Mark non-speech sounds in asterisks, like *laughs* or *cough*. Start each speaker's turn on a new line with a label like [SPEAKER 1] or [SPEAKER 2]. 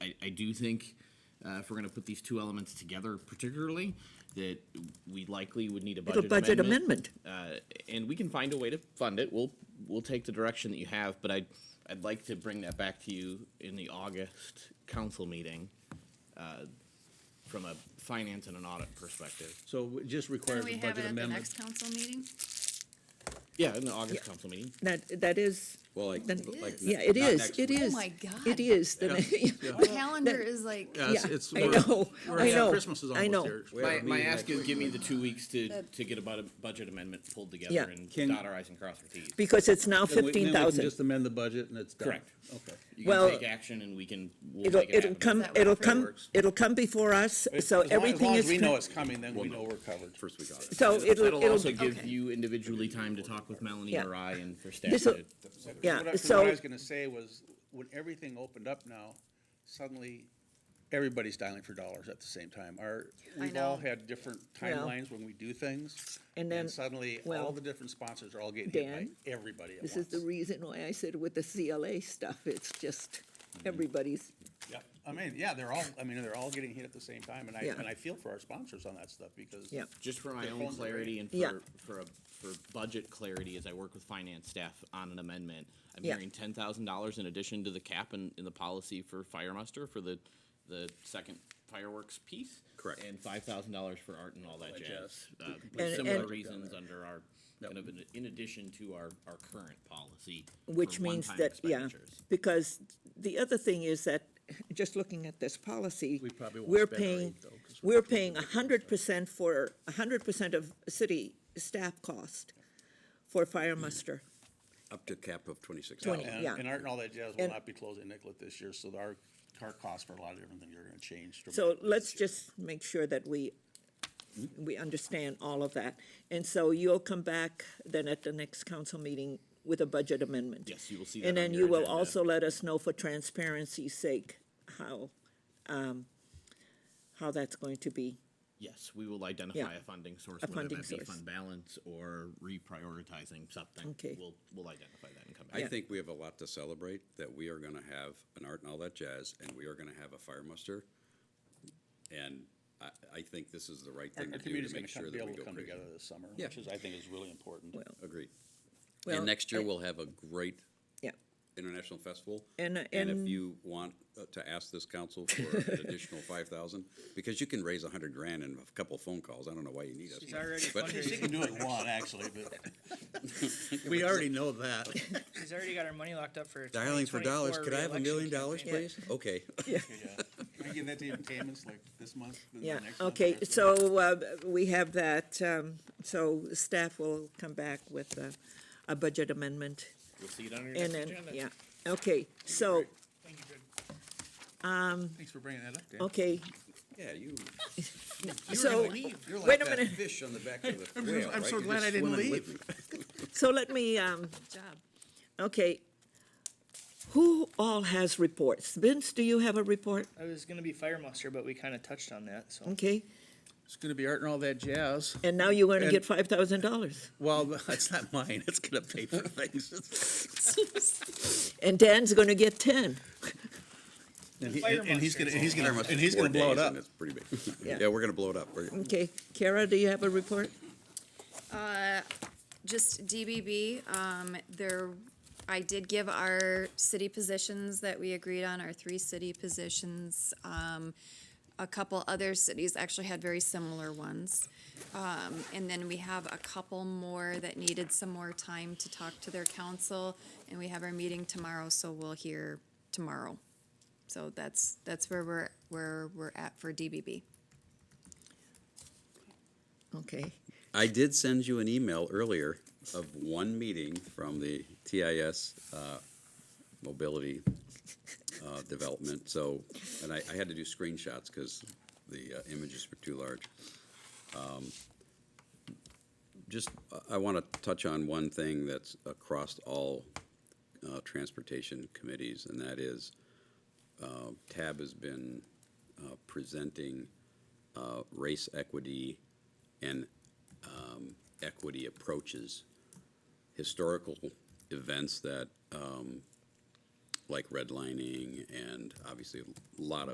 [SPEAKER 1] do think uh, if we're going to put these two elements together, particularly, that we likely would need a
[SPEAKER 2] A
[SPEAKER 1] budget,
[SPEAKER 2] budget
[SPEAKER 1] amendment.
[SPEAKER 2] amendment.
[SPEAKER 1] Uh, and we can find a way to fund it. We'll we'll take the direction that you have, but I'd I'd like to bring that back to you in the August council meeting, uh, from a finance and an audit perspective.
[SPEAKER 3] So it just
[SPEAKER 4] Can
[SPEAKER 3] requires
[SPEAKER 4] we
[SPEAKER 3] a
[SPEAKER 4] have it
[SPEAKER 3] budget
[SPEAKER 4] at the
[SPEAKER 3] amendment.
[SPEAKER 4] next council meeting?
[SPEAKER 1] Yeah, in the August council meeting.
[SPEAKER 2] That, that is,
[SPEAKER 5] Well, like,
[SPEAKER 2] then-
[SPEAKER 5] like.
[SPEAKER 2] yeah,
[SPEAKER 5] not
[SPEAKER 2] it is,
[SPEAKER 5] next
[SPEAKER 2] it
[SPEAKER 5] week.
[SPEAKER 2] is.
[SPEAKER 4] Oh my God.
[SPEAKER 2] It *laughs* is. the- yeah,
[SPEAKER 4] Our calendar is like,
[SPEAKER 3] Yeah, it's-
[SPEAKER 2] yeah,
[SPEAKER 3] it's-
[SPEAKER 2] I
[SPEAKER 3] we're-
[SPEAKER 2] know,
[SPEAKER 3] we're-
[SPEAKER 2] I
[SPEAKER 3] yeah,
[SPEAKER 2] know,
[SPEAKER 3] Christmas is
[SPEAKER 2] I
[SPEAKER 3] almost
[SPEAKER 2] know.
[SPEAKER 3] here. We have
[SPEAKER 1] My,
[SPEAKER 3] a
[SPEAKER 1] my
[SPEAKER 3] meeting
[SPEAKER 1] ask
[SPEAKER 3] next
[SPEAKER 1] is
[SPEAKER 3] week.
[SPEAKER 1] give me the two weeks to,
[SPEAKER 4] That-
[SPEAKER 1] to get a bud- budget amendment pulled
[SPEAKER 2] Yeah.
[SPEAKER 1] together and
[SPEAKER 3] Can-
[SPEAKER 1] dot our i's and cross our t's.
[SPEAKER 2] because it's now
[SPEAKER 3] Then we- then we
[SPEAKER 2] fifteen
[SPEAKER 3] can
[SPEAKER 2] thousand.
[SPEAKER 3] Just amend the budget and it's done.
[SPEAKER 1] Correct.
[SPEAKER 3] Okay.
[SPEAKER 1] You
[SPEAKER 2] well-
[SPEAKER 1] can take action and we can, we'll
[SPEAKER 2] It'll,
[SPEAKER 1] make it
[SPEAKER 2] it'll
[SPEAKER 1] happen.
[SPEAKER 2] come,
[SPEAKER 4] Is that
[SPEAKER 2] it'll
[SPEAKER 4] right?
[SPEAKER 2] come,
[SPEAKER 3] Works.
[SPEAKER 2] it'll come before us, so
[SPEAKER 3] As long- As long
[SPEAKER 2] everything
[SPEAKER 3] as
[SPEAKER 2] is.
[SPEAKER 3] we
[SPEAKER 2] con-
[SPEAKER 3] know it's coming, then we know we're covered.
[SPEAKER 5] First we got it.
[SPEAKER 2] So it'll,
[SPEAKER 1] That'll also
[SPEAKER 2] it'll,
[SPEAKER 1] give
[SPEAKER 4] Okay.
[SPEAKER 1] you individually time to talk with Melanie
[SPEAKER 2] Yeah.
[SPEAKER 1] or I and for staff
[SPEAKER 2] This'll-
[SPEAKER 1] to.
[SPEAKER 3] What I-
[SPEAKER 2] yeah,
[SPEAKER 3] 'cause What I
[SPEAKER 2] so,
[SPEAKER 3] was gonna say was, when everything opened up now, suddenly, everybody's dialing for dollars at the same time. Our,
[SPEAKER 4] I
[SPEAKER 3] we've all
[SPEAKER 4] know.
[SPEAKER 3] had different
[SPEAKER 2] Well.
[SPEAKER 3] timelines when we do things.
[SPEAKER 2] And then-
[SPEAKER 3] Suddenly,
[SPEAKER 2] well,
[SPEAKER 3] all the different sponsors are all getting hit by
[SPEAKER 2] Dan,
[SPEAKER 3] everybody at once.
[SPEAKER 2] this is the reason why I said with the CLA stuff, it's just, everybody's,
[SPEAKER 3] Yep. I mean, yeah, they're all, I mean, they're all getting hit at the same time, and I,
[SPEAKER 2] Yeah.
[SPEAKER 3] and I feel for our sponsors on that stuff, because.
[SPEAKER 2] Yeah.
[SPEAKER 1] Just for my
[SPEAKER 3] Their
[SPEAKER 1] own
[SPEAKER 3] phones are
[SPEAKER 1] clarity and
[SPEAKER 2] Yeah.
[SPEAKER 1] for, for, a- for budget clarity, as I work with finance staff on an amendment, I'm
[SPEAKER 2] Yeah.
[SPEAKER 1] hearing ten thousand dollars in addition to the cap in, in the policy for fire muster for the, the second fireworks piece.
[SPEAKER 5] Correct.
[SPEAKER 1] And five thousand dollars for art and all that
[SPEAKER 3] Like
[SPEAKER 1] jazz. uh, for
[SPEAKER 2] And-
[SPEAKER 1] Similar
[SPEAKER 2] and-
[SPEAKER 1] reasons under our, kind of in- in addition to our, our current policy.
[SPEAKER 2] which
[SPEAKER 1] for
[SPEAKER 2] means
[SPEAKER 1] one-time
[SPEAKER 2] that, yeah.
[SPEAKER 1] expenditures.
[SPEAKER 2] Because the other thing is that, just looking at this policy,
[SPEAKER 3] We probably won't
[SPEAKER 2] we're
[SPEAKER 3] spend our
[SPEAKER 2] paying,
[SPEAKER 3] eight, though, 'cause we're
[SPEAKER 2] we're
[SPEAKER 3] not doing
[SPEAKER 2] paying
[SPEAKER 3] it
[SPEAKER 2] a
[SPEAKER 3] right.
[SPEAKER 2] hundred percent for, a hundred percent of city staff cost for fire
[SPEAKER 3] Mm.
[SPEAKER 2] muster.
[SPEAKER 5] Up to cap of twenty-six
[SPEAKER 2] Twenty.
[SPEAKER 5] thousand.
[SPEAKER 3] And,
[SPEAKER 2] Yeah.
[SPEAKER 3] and Art and all that jazz will
[SPEAKER 2] And-
[SPEAKER 3] not be closing Nicollet this year, so our, our costs for a lot of different things are gonna change.
[SPEAKER 2] So
[SPEAKER 3] dramatically
[SPEAKER 2] let's
[SPEAKER 3] this year.
[SPEAKER 2] just make sure that we,
[SPEAKER 3] Mm-hmm.
[SPEAKER 2] we understand all of that. And so you'll come back then at the next council meeting with a budget amendment.
[SPEAKER 1] Yes, you will see that
[SPEAKER 2] And
[SPEAKER 1] on
[SPEAKER 2] then
[SPEAKER 1] your
[SPEAKER 2] you will
[SPEAKER 1] agenda.
[SPEAKER 2] also let us know for transparency's sake how, um, how that's going to be.
[SPEAKER 1] Yes, we will identify
[SPEAKER 2] Yeah.
[SPEAKER 1] a funding source,
[SPEAKER 2] A
[SPEAKER 1] whether
[SPEAKER 2] funding
[SPEAKER 1] that be
[SPEAKER 2] source.
[SPEAKER 1] fund balance or reprioritizing something.
[SPEAKER 2] Okay.
[SPEAKER 1] We'll, we'll identify that and come back.
[SPEAKER 5] I think we have a lot to celebrate, that we are gonna have an art and all that jazz, and we are gonna have a fire muster. And I, I think this is the right thing
[SPEAKER 3] Our
[SPEAKER 5] to do
[SPEAKER 3] community's
[SPEAKER 5] to
[SPEAKER 3] gonna
[SPEAKER 5] make sure
[SPEAKER 3] come, be
[SPEAKER 5] that we
[SPEAKER 3] able to
[SPEAKER 5] go
[SPEAKER 3] come
[SPEAKER 5] crazy.
[SPEAKER 3] together this summer,
[SPEAKER 5] Yeah.
[SPEAKER 3] which is, I think, is really important.
[SPEAKER 2] Well,
[SPEAKER 5] Agreed.
[SPEAKER 2] Well,
[SPEAKER 5] And next year,
[SPEAKER 2] I-
[SPEAKER 5] we'll have a great
[SPEAKER 2] Yeah,
[SPEAKER 5] international festival.
[SPEAKER 2] And, uh, and-
[SPEAKER 5] if you want uh, to ask this council for an
[SPEAKER 2] *laughs*
[SPEAKER 5] additional five thousand, because you can raise a hundred grand in a couple phone calls, I don't know why you need us.
[SPEAKER 6] She's already
[SPEAKER 5] but-
[SPEAKER 3] She
[SPEAKER 6] *laughs* fundraising,
[SPEAKER 3] can do it one, actually, but we already know that.
[SPEAKER 6] she's already got her money locked up for.
[SPEAKER 5] Dialing for dollars,
[SPEAKER 6] 2024
[SPEAKER 5] could I have a
[SPEAKER 6] reelection
[SPEAKER 5] million dollars,
[SPEAKER 6] campaign.
[SPEAKER 5] please?
[SPEAKER 3] *laughs*
[SPEAKER 5] Okay.
[SPEAKER 3] Can I give that to you in payments, like this month? the
[SPEAKER 2] yeah,
[SPEAKER 3] next month,
[SPEAKER 2] okay,
[SPEAKER 3] next month?
[SPEAKER 2] so, uh, we have that, um, so staff will come back with a, a budget amendment.
[SPEAKER 1] You'll see it on your
[SPEAKER 2] And
[SPEAKER 1] next
[SPEAKER 2] then,
[SPEAKER 1] agenda.
[SPEAKER 2] yeah, okay, so,
[SPEAKER 6] Thank you, Greg.
[SPEAKER 3] Thanks for bringing that up, Dan.
[SPEAKER 2] okay,
[SPEAKER 5] Yeah, you,
[SPEAKER 2] so,
[SPEAKER 5] you're
[SPEAKER 2] Wait
[SPEAKER 5] like
[SPEAKER 2] a
[SPEAKER 5] that
[SPEAKER 2] minute.
[SPEAKER 5] fish on the back of the whale,
[SPEAKER 3] *laughs* I'm
[SPEAKER 5] right?
[SPEAKER 3] so
[SPEAKER 5] You're
[SPEAKER 3] glad
[SPEAKER 5] just
[SPEAKER 3] I didn't
[SPEAKER 5] swimming
[SPEAKER 3] leave.
[SPEAKER 5] with me.
[SPEAKER 2] so let me, um,
[SPEAKER 4] good job.
[SPEAKER 2] Okay. Who all has reports? Vince, do you have a report?
[SPEAKER 6] I was gonna be fire muster, but we kinda touched on that, so.
[SPEAKER 2] Okay,
[SPEAKER 3] It's gonna be Art and all that jazz.
[SPEAKER 2] and now you're gonna get
[SPEAKER 3] And-
[SPEAKER 2] five thousand dollars.
[SPEAKER 3] Well, *laughs* that's not mine. It's gonna pay for things.
[SPEAKER 2] And Dan's gonna get ten.
[SPEAKER 3] And he-
[SPEAKER 6] Fire
[SPEAKER 3] and he's gonna, and he's
[SPEAKER 5] There
[SPEAKER 3] gonna,
[SPEAKER 5] must
[SPEAKER 3] and
[SPEAKER 5] be
[SPEAKER 3] he's
[SPEAKER 5] four
[SPEAKER 3] gonna blow it
[SPEAKER 5] days
[SPEAKER 3] up.
[SPEAKER 5] and it's pretty big.
[SPEAKER 2] Yeah.
[SPEAKER 5] Yeah, we're gonna blow it up. We're-
[SPEAKER 2] Okay, Kara, do you have a report?
[SPEAKER 4] Just DBB, um, there, I did give our city positions that we agreed on, our three city positions. Um, a couple other cities actually had very similar ones. Um, and then we have a couple more that needed some more time to talk to their council. And we have our meeting tomorrow, so we'll hear tomorrow. So that's, that's where we're, where we're at for DBB.
[SPEAKER 2] Okay,
[SPEAKER 5] I did send you an email earlier of one meeting from the TIS uh, Mobility uh, Development, so, and I, I had to do screenshots because the uh, images were too large. Um, Just, I- I want to touch on one thing that's across all uh, transportation committees, and that is uh, TAB has been uh, presenting uh, race equity and um, equity approaches, historical events that, um, like redlining and obviously a lot of